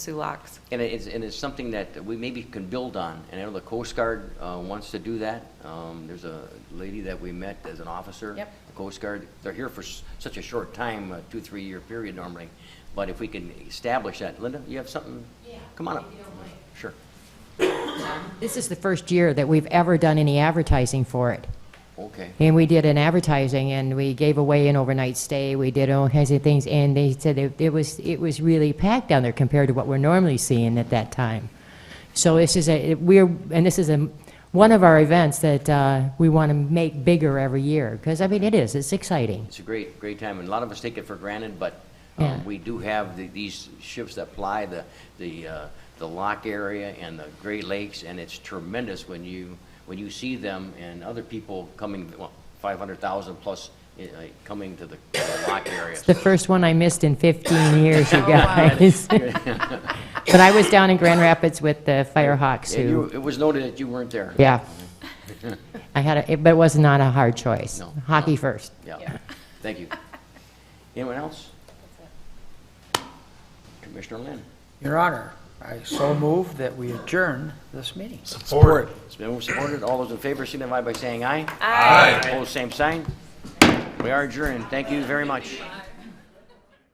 Sulaks. And it- it's, and it's something that we maybe can build on, and I know the Coast Guard uh, wants to do that. Um, There's a lady that we met as an officer. Yep. The Coast Guard, they're here for s- such a short time, a two, three-year period normally, but if we can establish that. Linda, you have something? Yeah. Come on up. Sure. This is the first year that we've ever done any advertising for it. Okay. And we did an advertising and we gave away an overnight stay, we did all kinds of things, and they said it, it was, it was really packed down there compared to what we're normally seeing at that time. So this is a, we're, and this is a, one of our events that, uh, we want to make bigger every year, because I mean, it is, it's exciting. It's a great, great time, and a lot of us take it for granted, but um, Yeah. we do have the- these ships that ply the, the, uh, the lock area and the Great Lakes, and it's tremendous when you, when you see them and other people coming, well, 500,000 plus uh, coming to the the lock area. It's the first one I missed in 15 years, you guys. But I was down in Grand Rapids with the Firehawks And who. you- It was noted that you weren't there. Yeah. I had a, it- but it was not a hard choice. No. Hockey first. Yeah, thank you. Anyone else? Commissioner Lynn? Your Honor, I so move that we adjourn this meeting. It's been moved and supported. All those in favor signify by saying aye. Aye. Opposed, same sign. We are adjourned. Thank you very much.